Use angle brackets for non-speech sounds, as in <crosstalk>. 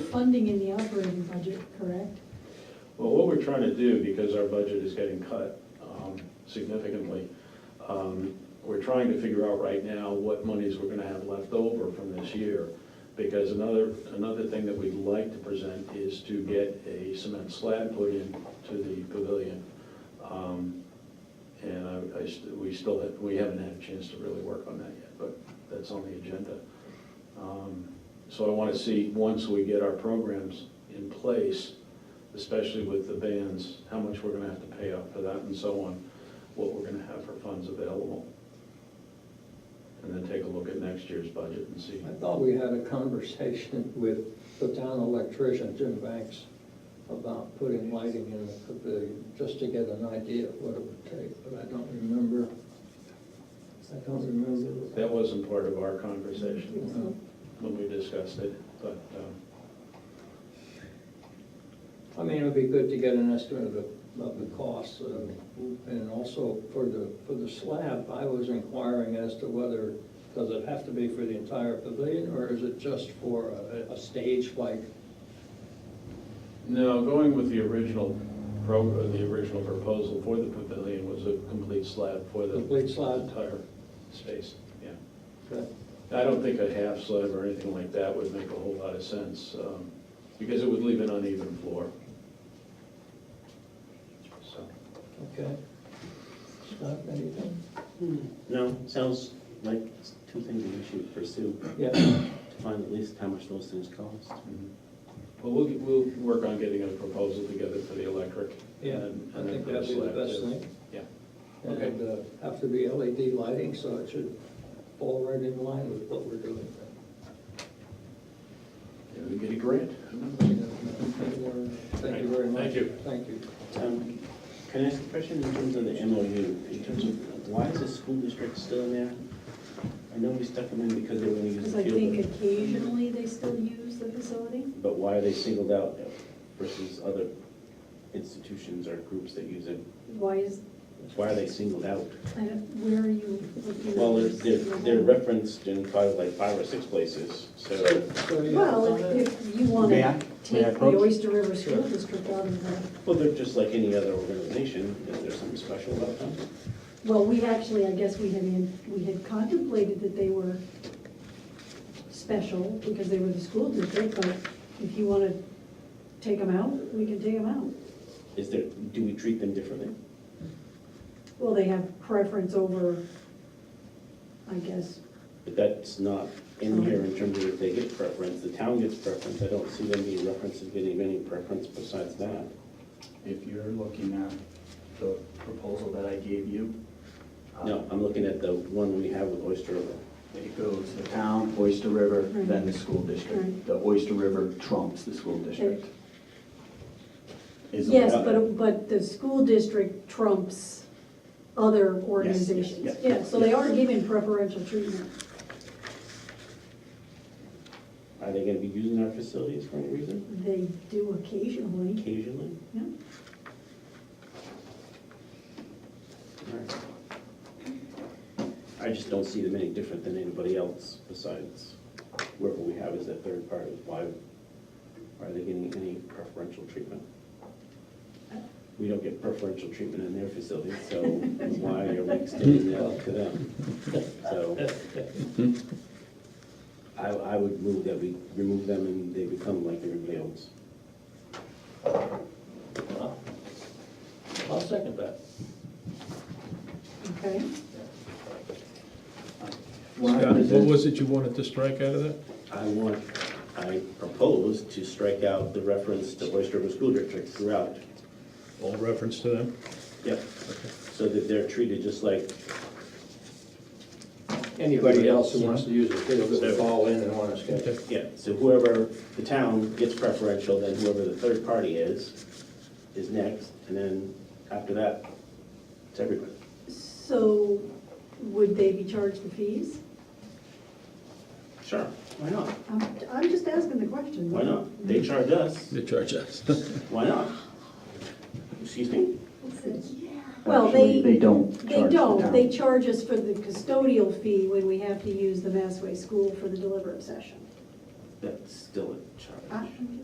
funding in the operating budget, correct? Well, what we're trying to do, because our budget is getting cut um, significantly, um, we're trying to figure out right now what monies we're gonna have left over from this year. Because another, another thing that we'd like to present is to get a cement slab put in to the pavilion. Um, And I- I, st- we still, ha- we haven't had a chance to really work on that yet, but that's on the agenda. Um, So I wanna see, once we get our programs in place, especially with the bands, how much we're gonna have to pay out for that and so on, what we're gonna have for funds available. And then take a look at next year's budget and see. I thought we had a conversation <laughs> with the town electrician, Jim Banks, about putting lighting in the pavilion, just to get an idea of what it would take, but I don't remember. I don't remember. That wasn't part of our conversation No. when we discussed it, but, um, I mean, it'd be good to get an estimate of the, of the costs, uh, and also for the, for the slab, I was inquiring as to whether, does it have to be for the entire pavilion, or is it just for a, a stage like? no, going with the original pro, or the original proposal for the pavilion was a complete slab for the. Complete slab. Entire space, yeah. I don't think a half slab or anything like that would make a whole lot of sense, um, because it would leave an uneven floor. So, Okay. Scott, anything? Hmm, No, sounds like it's two things that we should pursue, Yeah. to find at least how much those things cost. mm-hmm. well, we'll, we'll work on getting a proposal together for the electric. Yeah, and- I and think then that'd be the slab best too. thing. Yeah, Okay. And uh, have to be LED lighting, so it should fall right in line with what we're doing. Yeah, we get a grant. Thank you very much. Thank you. Thank you. Um, Can I ask a question in terms of the MOU, in terms of, why is the school district still in there? I know we stuck them in because they were gonna use Because the I think field, occasionally they still use the facility. but why are they singled out versus other institutions or groups that use it? Why is, Why are they singled out? I don't- where are you looking? Well, at they're, this? they're- they're referenced in probably like five or six places, So, so, yeah, Well, on it. if- if you want May I- to may take the I approach? Oyster River School Sure. District out of the, well, they're just like any other organization, is there something special about them? well, we actually, I guess we had, in- we had contemplated that they were special because they were the school district, but if you want to take them out, we can take them out. Is there, do we treat them differently? Well, they have preference over, I guess, But that's not in here in terms of if they get preference, the town gets preference, I don't see them being referenced as getting any preference besides that. If you're looking at the proposal that I gave you. uh, No, I'm looking at the one we have with Oyster River. It goes the town, Oyster River, then the school Right. district. The Oyster River trumps the school district. Is the Yes, way- but, but the school district trumps other organizations. yes, yes, Yeah, so they are given preferential treatment. Are they gonna be using our facilities for any reason? They do occasionally, Occasionally? yeah. Alright. I just don't see them any different than anybody else besides whoever we have as that third party. Why are they getting any preferential treatment? We don't get preferential treatment in their facility, so why are we extending that to them? So I, I would move that we remove them and they become like everybody else. Well, I'll second that. Okay, When I Scott, what present- was it you wanted to strike out of that? I want, I propose to strike out the reference to Oyster River School District throughout. All reference to them? Yep. So that they're treated just like, Anybody else who wants to use the field that fall in and want to Okay. schedule. yeah, so whoever, the town gets preferential, then whoever the third party is, is next, and then after that, it's everybody. so would they be charged the fees? Sure, why not? Mm-hmm. I'm, I'm just asking the question. Why not? They charge us, They charge us. why not? Excuse me? Well, Actually, They they, don't they charge the don't, town. they charge us for the custodial fee when we have to use the Massway School for the deliberative session. that's still a charge. I-